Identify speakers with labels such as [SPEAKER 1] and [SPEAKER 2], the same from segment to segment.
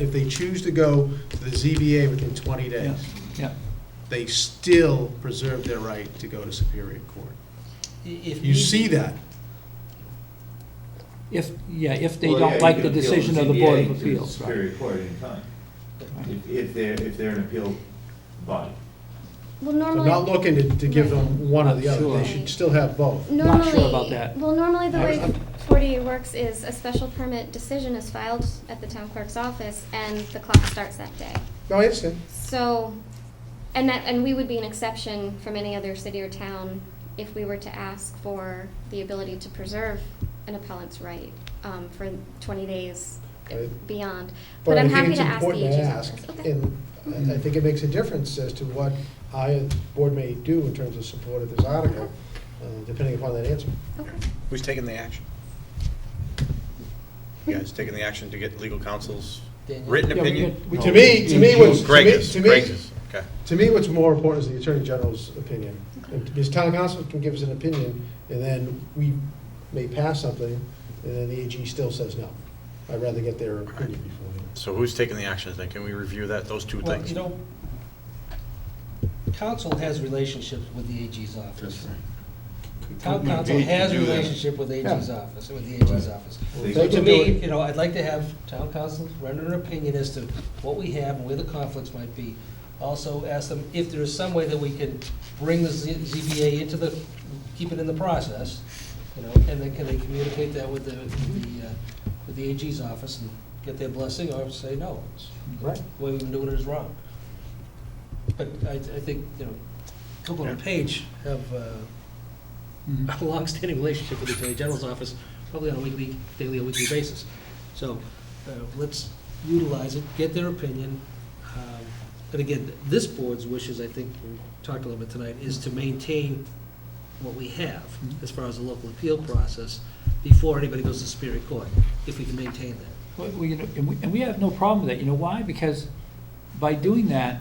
[SPEAKER 1] If they choose to go to the ZBA within 20 days,
[SPEAKER 2] Yeah,
[SPEAKER 1] they still preserve their right to go to Superior Court.
[SPEAKER 3] If
[SPEAKER 1] You
[SPEAKER 3] need
[SPEAKER 1] see
[SPEAKER 3] be-
[SPEAKER 1] that.
[SPEAKER 2] if, yeah, if they
[SPEAKER 4] Well, yeah,
[SPEAKER 2] don't
[SPEAKER 4] you
[SPEAKER 2] like
[SPEAKER 4] can
[SPEAKER 2] the
[SPEAKER 4] appeal to
[SPEAKER 2] decision of the Board
[SPEAKER 4] ZBA
[SPEAKER 2] of
[SPEAKER 4] to
[SPEAKER 2] Appeals, right?
[SPEAKER 4] Superior Court anytime,
[SPEAKER 2] Right.
[SPEAKER 4] if, if they're, if they're an appeal body.
[SPEAKER 5] Well,
[SPEAKER 1] I'm not
[SPEAKER 5] normally,
[SPEAKER 1] looking to, to give them one or the other, they should still have both.
[SPEAKER 5] normally.
[SPEAKER 2] Not sure about that.
[SPEAKER 5] Well, normally the
[SPEAKER 2] I
[SPEAKER 5] way
[SPEAKER 2] was-
[SPEAKER 5] 48 works is a special permit decision is filed at the town clerk's office and the clock starts that day.
[SPEAKER 1] No, I understand.
[SPEAKER 5] So, and that, and we would be an exception from any other city or town if we were to ask for the ability to preserve an appellant's right um, for 20 days
[SPEAKER 1] Right.
[SPEAKER 5] beyond.
[SPEAKER 6] But
[SPEAKER 5] But
[SPEAKER 6] I
[SPEAKER 5] I'm
[SPEAKER 6] think
[SPEAKER 5] happy
[SPEAKER 6] it's
[SPEAKER 5] to ask the
[SPEAKER 6] important to
[SPEAKER 5] AG's
[SPEAKER 6] ask,
[SPEAKER 5] office. Okay.
[SPEAKER 6] and I- I think it makes a difference as to what I, as the board may do in terms of support of this article, uh, depending upon that answer.
[SPEAKER 5] Okay.
[SPEAKER 7] Who's taking the action? You guys taking the action to get legal counsel's
[SPEAKER 3] Daniel.
[SPEAKER 7] written
[SPEAKER 2] Yeah, we
[SPEAKER 7] opinion?
[SPEAKER 2] get- we
[SPEAKER 6] To
[SPEAKER 2] get-
[SPEAKER 6] me, to me, what's,
[SPEAKER 1] Mm-hmm.
[SPEAKER 6] to
[SPEAKER 7] Greg
[SPEAKER 6] me,
[SPEAKER 7] is,
[SPEAKER 6] to
[SPEAKER 7] Greg
[SPEAKER 6] me,
[SPEAKER 7] is, okay.
[SPEAKER 6] to me, what's more important is the Attorney General's opinion. And Because town council can give us an opinion, and then we may pass something, and then the AG still says no. I'd rather get their opinion before.
[SPEAKER 7] So who's taking the action then? Can we review that, those two
[SPEAKER 3] Well,
[SPEAKER 7] things?
[SPEAKER 3] you know, council has relationships with the AG's office. Town council has relationship with AG's
[SPEAKER 6] Yeah.
[SPEAKER 3] office, with the AG's office.
[SPEAKER 4] They
[SPEAKER 3] So
[SPEAKER 6] They
[SPEAKER 3] to
[SPEAKER 6] can
[SPEAKER 3] me,
[SPEAKER 6] do it.
[SPEAKER 3] you know, I'd like to have town council render an opinion as to what we have and where the conflicts might be. Also ask them if there is some way that we can bring the Z- ZBA into the, keep it in the process, you know, and then can they communicate that with the, with the, uh, with the AG's office and get their blessing or say no.
[SPEAKER 6] Right.
[SPEAKER 3] The way we've been doing it is wrong. But I, I think, you know, Copeland and Page have, uh,
[SPEAKER 2] Mhm.
[SPEAKER 3] a longstanding relationship with the Attorney General's office, probably on a weekly, daily or weekly basis. So uh, let's utilize it, get their opinion. Um, And again, this board's wishes, I think, we talked a little bit tonight, is to maintain what we have
[SPEAKER 2] Mm-hmm.
[SPEAKER 3] as far as the local appeal process before anybody goes to Superior Court, if we can maintain that.
[SPEAKER 2] Well, we- you know, And we- and we have no problem with that, you know why? Because by doing that,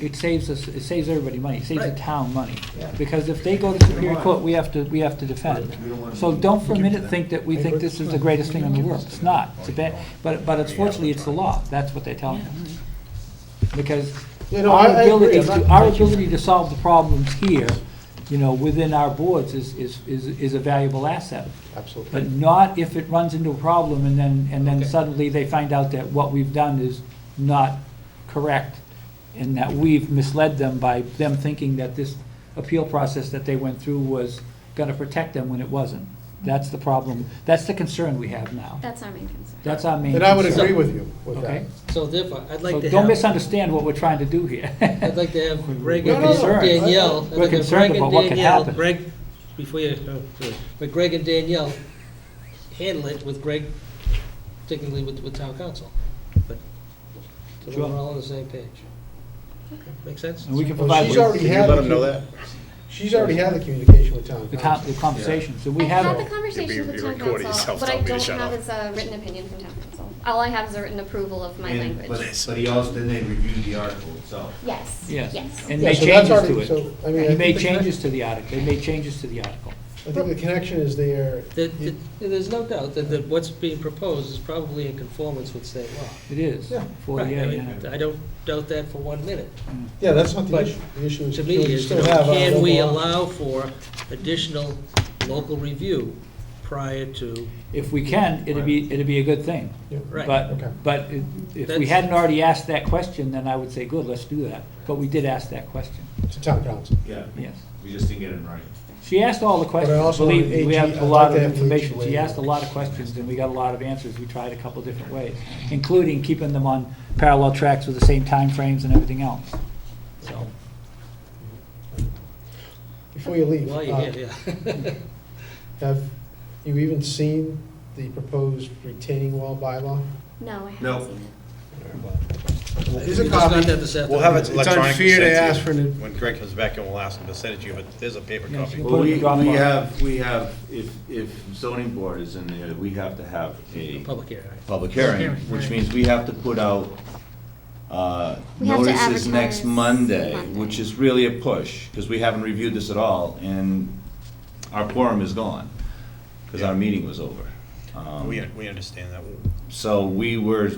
[SPEAKER 2] it saves us, it saves everybody money, it saves the
[SPEAKER 3] Right.
[SPEAKER 2] town money.
[SPEAKER 6] Yeah.
[SPEAKER 2] Because if they go to Superior Court, we have to, we have to defend.
[SPEAKER 4] We don't wanna-
[SPEAKER 2] So don't for a minute think that we think this is the greatest thing in the world. It's not, it's a bad, but, but unfortunately, it's the law, that's what they're telling us. Because
[SPEAKER 6] You know, I-
[SPEAKER 2] our
[SPEAKER 6] I agree.
[SPEAKER 2] ability,
[SPEAKER 6] I'm
[SPEAKER 2] to-
[SPEAKER 6] not-
[SPEAKER 2] our ability to solve the problems here, you know, within our boards is, is, is is a valuable asset.
[SPEAKER 6] Absolutely.
[SPEAKER 2] But not if it runs into a problem and then, and then
[SPEAKER 3] Okay.
[SPEAKER 2] suddenly they find out that what we've done is not correct and that we've misled them by them thinking that this appeal process that they went through was gonna protect them when it wasn't. That's the problem, that's the concern we have now.
[SPEAKER 5] That's our main concern.
[SPEAKER 2] That's our main
[SPEAKER 6] And I would
[SPEAKER 2] concern.
[SPEAKER 6] agree with you with that.
[SPEAKER 2] Okay?
[SPEAKER 3] So therefore, I'd like
[SPEAKER 2] So
[SPEAKER 3] to have.
[SPEAKER 2] don't misunderstand what we're trying to do here.
[SPEAKER 3] I'd like to have Greg
[SPEAKER 2] We're
[SPEAKER 3] and
[SPEAKER 2] concerned.
[SPEAKER 3] Danielle.
[SPEAKER 2] We're
[SPEAKER 3] I'd like to have
[SPEAKER 2] concerned
[SPEAKER 3] Greg
[SPEAKER 2] about
[SPEAKER 3] and
[SPEAKER 2] what could
[SPEAKER 3] Danielle-
[SPEAKER 2] happen.
[SPEAKER 3] Greg, before you, oh, sorry. but Greg and Danielle handle it with Greg, particularly with, with town council. But so
[SPEAKER 2] Sure.
[SPEAKER 3] we're all on the same page. Make sense?
[SPEAKER 2] And we can
[SPEAKER 6] Well,
[SPEAKER 2] provide
[SPEAKER 6] she's
[SPEAKER 2] the
[SPEAKER 6] already-
[SPEAKER 7] Can you let them know that?
[SPEAKER 6] She's already had the communication with town
[SPEAKER 2] the
[SPEAKER 6] council.
[SPEAKER 2] con- the conversation, so we
[SPEAKER 5] I've had
[SPEAKER 2] have,
[SPEAKER 5] the conversation
[SPEAKER 7] You'll be-
[SPEAKER 5] with
[SPEAKER 7] you're
[SPEAKER 5] town
[SPEAKER 7] recording
[SPEAKER 5] council.
[SPEAKER 7] yourself,
[SPEAKER 5] What
[SPEAKER 7] tell
[SPEAKER 5] I
[SPEAKER 7] me to
[SPEAKER 5] don't
[SPEAKER 7] shut
[SPEAKER 5] have
[SPEAKER 7] up.
[SPEAKER 5] is a written opinion from town council. All I have is a written approval of my
[SPEAKER 4] And- but-
[SPEAKER 5] language.
[SPEAKER 4] But he also, then they review the article itself.
[SPEAKER 5] Yes,
[SPEAKER 2] yes.
[SPEAKER 5] yes.
[SPEAKER 2] And
[SPEAKER 6] Yeah,
[SPEAKER 2] make
[SPEAKER 6] so that's
[SPEAKER 2] changes
[SPEAKER 6] already-
[SPEAKER 2] to it.
[SPEAKER 6] so, I mean, I
[SPEAKER 2] He made
[SPEAKER 6] think the
[SPEAKER 2] changes to the article, they made changes to the article.
[SPEAKER 6] I think the connection is there.
[SPEAKER 3] The- the- There's no doubt that, that what's being proposed is probably in conformance with state law.
[SPEAKER 2] It is,
[SPEAKER 6] Yeah.
[SPEAKER 2] for,
[SPEAKER 3] Right, I
[SPEAKER 2] yeah,
[SPEAKER 3] mean,
[SPEAKER 2] yeah.
[SPEAKER 3] I don't doubt that for one minute.
[SPEAKER 6] Yeah, that's not the
[SPEAKER 3] But
[SPEAKER 6] issue. The issue is.
[SPEAKER 3] To me,
[SPEAKER 6] you
[SPEAKER 3] is, you
[SPEAKER 6] still
[SPEAKER 3] know,
[SPEAKER 6] have
[SPEAKER 2] uh,
[SPEAKER 6] a
[SPEAKER 3] can we
[SPEAKER 6] local-
[SPEAKER 3] allow for additional local review prior to,
[SPEAKER 2] If we can, it'd be, it'd be a good thing.
[SPEAKER 6] Yeah.
[SPEAKER 3] Right.
[SPEAKER 6] Okay.
[SPEAKER 2] But, but it- if we
[SPEAKER 3] That's-
[SPEAKER 2] hadn't already asked that question, then I would say, good, let's do that. But we did ask that question,
[SPEAKER 6] To town council.
[SPEAKER 4] Yeah,
[SPEAKER 2] yes.
[SPEAKER 4] we just didn't get it in writing.
[SPEAKER 2] She asked all the questions,
[SPEAKER 6] also
[SPEAKER 2] believe
[SPEAKER 6] want
[SPEAKER 2] me, we
[SPEAKER 6] AG
[SPEAKER 2] have
[SPEAKER 6] I'd
[SPEAKER 2] a
[SPEAKER 6] like
[SPEAKER 2] lot
[SPEAKER 6] to
[SPEAKER 2] of
[SPEAKER 6] have the AG
[SPEAKER 2] information.
[SPEAKER 6] weigh
[SPEAKER 2] She
[SPEAKER 6] in.
[SPEAKER 2] asked a lot of questions, and we got a lot of answers. We tried a couple different ways, including keeping them on parallel tracks with the same timeframes and everything else, so.
[SPEAKER 6] Before you leave,
[SPEAKER 3] while
[SPEAKER 6] uh,
[SPEAKER 3] you're here, yeah.
[SPEAKER 6] have you even seen the proposed retaining wall bylaw?
[SPEAKER 5] No, I haven't
[SPEAKER 4] No.
[SPEAKER 5] seen it.
[SPEAKER 6] There's
[SPEAKER 3] We
[SPEAKER 6] a
[SPEAKER 3] just got
[SPEAKER 6] copy.
[SPEAKER 3] that this
[SPEAKER 7] We'll have
[SPEAKER 3] afternoon.
[SPEAKER 7] it
[SPEAKER 1] It's
[SPEAKER 7] electronically sent to you.
[SPEAKER 1] unfair to ask for an-
[SPEAKER 7] When Greg comes back and we'll ask him to send it to you, but there's a paper
[SPEAKER 2] Yes,
[SPEAKER 7] copy.
[SPEAKER 2] you-
[SPEAKER 4] Well,
[SPEAKER 2] Put it
[SPEAKER 4] we,
[SPEAKER 2] in Dropbox.
[SPEAKER 4] we have, we have, if, if zoning board is in there, we have to have a
[SPEAKER 3] Public hearing.
[SPEAKER 4] public hearing,
[SPEAKER 3] Hearing,
[SPEAKER 4] which
[SPEAKER 3] right.
[SPEAKER 4] means we have to put out, uh,
[SPEAKER 5] We have to
[SPEAKER 4] notices next
[SPEAKER 5] advertise
[SPEAKER 4] Monday,
[SPEAKER 5] Monday.
[SPEAKER 4] which is really a push, because we haven't reviewed this at all, and our quorum is gone, because our meeting was over. Um,
[SPEAKER 7] We, we understand that.
[SPEAKER 4] So we were